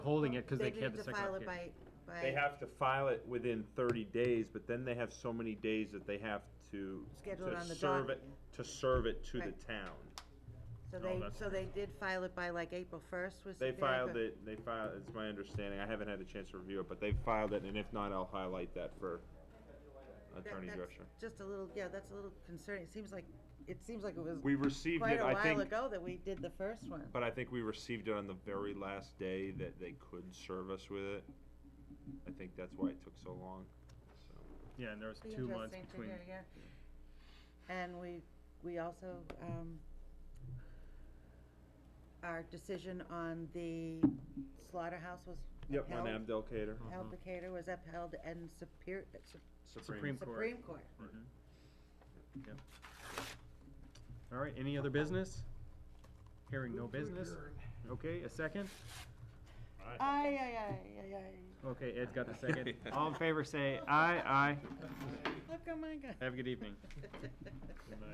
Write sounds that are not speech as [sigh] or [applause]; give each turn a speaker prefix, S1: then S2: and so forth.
S1: holding it because they can't have
S2: didn't
S1: the
S2: file it
S1: second
S2: by, by.
S3: They have to file it within thirty days, but then they have so many days that they have to,
S2: Schedule it on
S3: to
S2: the
S3: serve
S2: docket,
S3: it, to serve it to the
S2: Right.
S3: town.
S2: So
S3: No,
S2: they,
S3: that's-
S2: so they did file it by like April first, was
S3: They
S2: the- like
S3: filed
S2: a-
S3: it, they filed, it's my understanding, I haven't had a chance to review it, but they filed it, and if not, I'll highlight that for
S2: that-
S3: Attorney
S2: that's
S3: Drescher.
S2: Just a little, yeah, that's a little concerning, it seems like, it seems like it was
S3: We received
S2: quite
S3: it,
S2: a
S3: I
S2: while
S3: think,
S2: ago that we did the first one.
S3: but I think we received it on the very last day that they could serve us with it. I think that's why it took so long, so.
S1: Yeah, and there was
S2: Be
S1: two months
S2: interesting to
S1: between.
S2: hear, yeah. And we, we also, um, our decision on the slaughterhouse was
S3: Yep, on
S2: upheld.
S3: Abdel Kader.
S2: Held
S1: Mm-hmm.
S2: Decatur was upheld and Superior,
S1: Supreme Court.
S2: Supreme Court.
S1: Mhm. Yep. All right, any other business? Hearing no business? Okay, a second?
S2: Aye, aye, aye, aye, aye.
S1: Okay, Ed's got the second. All in favor, say aye, aye.
S2: Look, oh my God.
S1: [laughs] Have a good evening.